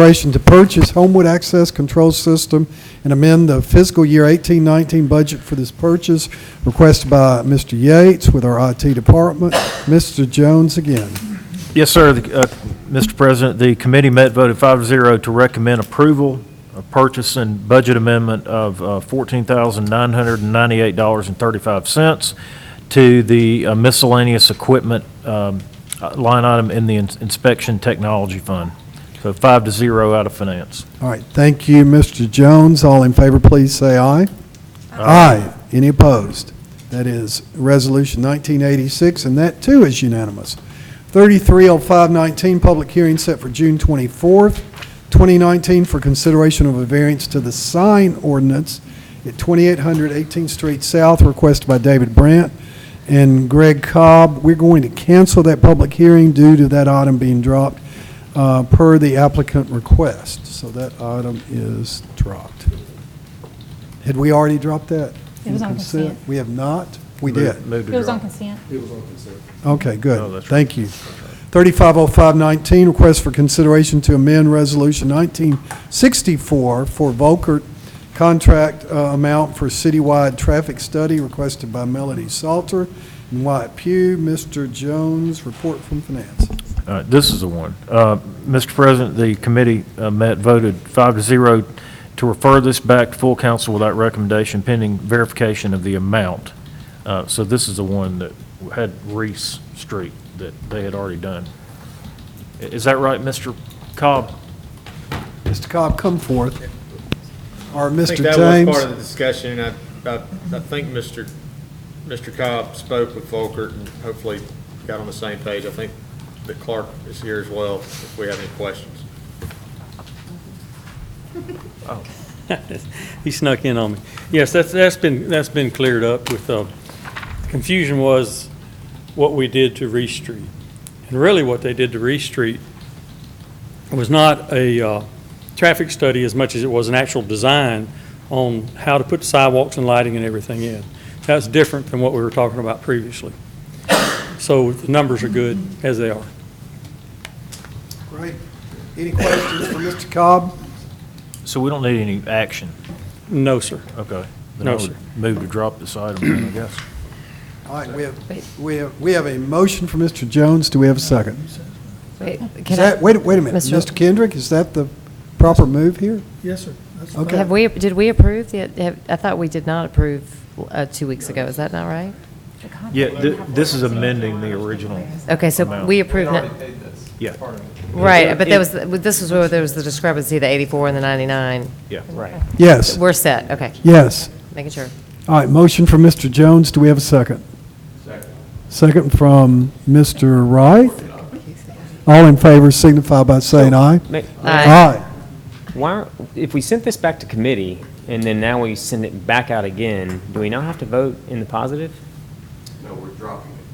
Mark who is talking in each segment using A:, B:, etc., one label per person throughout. A: Consideration to purchase Homewood Access Control System and amend the fiscal year 1819 budget for this purchase requested by Mr. Yates with our IT department. Mr. Jones again.
B: Yes, sir. The, uh, Mr. President, the committee met, voted five to zero to recommend approval of purchase and budget amendment of uh, $14,998.35 to the uh, miscellaneous equipment um, uh, line item in the in- inspection technology fund. So five to zero out of finance.
A: All right, thank you, Mr. Jones. All in favor, please say aye. Aye. Any opposed? That is Resolution 1986, and that too is unanimous. 330519, public hearing set for June 24th, 2019, for consideration of a variance to the sign ordinance at 2800 18th Street South, requested by David Brandt and Greg Cobb. We're going to cancel that public hearing due to that item being dropped uh, per the applicant request. So that item is dropped. Had we already dropped that?
C: It was on consent.
A: We have not? We did.
B: Move to
C: It was on
B: drop.
C: consent.
A: Okay,
B: Oh,
A: good.
B: that's
A: Thank you. 350519, request for consideration to amend Resolution 1964 for Volkert contract uh, amount for citywide traffic study requested by Melody Salter and Wyatt Pugh. Mr. Jones, report from finance.
B: All right, This is the one. Uh, Mr. President, the committee uh, met, voted five to zero to refer this back to full council without recommendation pending verification of the amount. Uh, So this is the one that had Reese Street that they had already done. I- Is that right, Mr. Cobb?
A: Mr. Cobb, come forth. Or
D: I think
A: Mr.
D: that was part of
A: James.
D: the discussion, and I, I, I think Mr., Mr. Cobb spoke with Volkert and hopefully got on the same page. I think the clerk is here as well, if we have any questions.
E: He snuck in on me. Yes, that's, that's been, that's been cleared up with, uh, confusion was what we did to Reece Street. And really what they did to Reece Street was not a, uh, traffic study as much as it was an actual design on how to put sidewalks and lighting and everything in. That's different than what we were talking about previously. So the numbers are good as they are.
A: Great. Any questions for Mr. Cobb?
B: So we don't need any action.
E: No, sir.
B: Okay. Then
E: No,
B: I would
E: sir.
B: Move to drop this item, then, I guess.
A: All right, we have, we have, we have a motion for Mr. Jones. Do we have a second? Is
F: Wait, can I-
A: that, wait, wait a minute,
F: Mr.
A: Mr. Kendrick, is that the proper move here?
G: Yes, sir. That's fine.
A: Okay,
F: have we, did we approve the, have- I thought we did not approve uh, two weeks ago, is that not right?
B: Yeah, thi- this is amending the original.
F: Okay, so
B: Amount.
F: we approved, no-
B: Yeah,
F: right, but there was, this was where there was the discrepancy, the 84 and the 99.
B: yeah. Right.
A: yes,
F: We're set, okay,
A: yes.
F: making sure.
A: All right, motion from Mr. Jones, do we have a second? Second from Mr. Wright. All in favor signify by saying aye.
H: Ma-
F: Aye.
H: Why, if we sent this back to committee, and then now we send it back out again, do we now have to vote in the positive?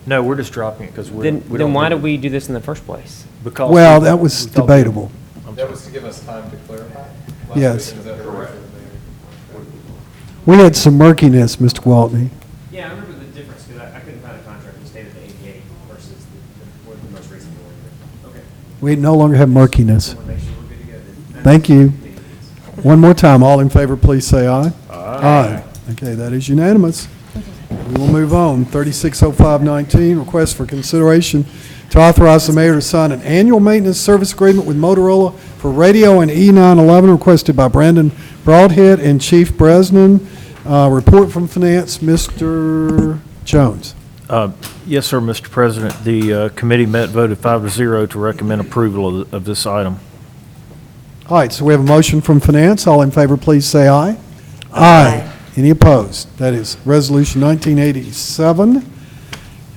B: No, we're just dropping it because we're.
H: Then,
B: we
H: then
B: don't
H: why
B: need
H: did we do this in the first place?
B: it because
A: Well,
B: we-
A: that was
B: we thought-
A: debatable.
I: That was to give us time to clarify?
A: Yes.
I: Correct.
A: We had some murkiness, Mr. Waltney.
H: Yeah, I remember the difference, because I, I couldn't find a contract that stated the eighty-eight versus the, the most recent one. Okay.
A: We no longer have murkiness.
H: make sure we're good to go then.
A: Thank you. One more time, all in favor, please say aye. Aye. Okay, that is unanimous. We will move on. 360519, request for consideration to authorize the mayor to sign an annual maintenance service agreement with Motorola for radio and E911 requested by Brandon Broadhead and Chief Bresnan. Uh, Report from finance, Mr. Jones.
B: Uh, Yes, sir, Mr. President. The uh, committee met, voted five to zero to recommend approval of- of this item.
A: All right, so we have a motion from finance. All in favor, please say aye. Aye. Any opposed? That is Resolution 1987,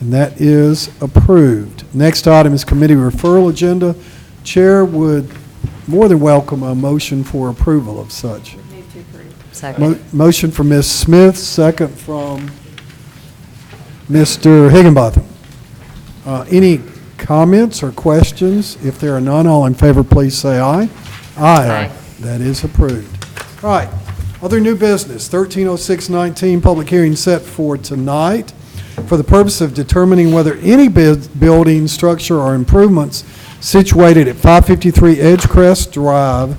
A: and that is approved. Next item is committee referral agenda. Chair would more than welcome a motion for approval of such.
F: Second.
A: Mo- Motion from Ms. Smith, second from Mr. Higginbotham. Uh, Any comments or questions? If there are none, all in favor, please say aye.
F: Aye.
A: That is approved. All right, other new business, 130619, public hearing set for tonight for the purpose of determining whether any bid- building, structure, or improvements situated at 553 Edgecrest Drive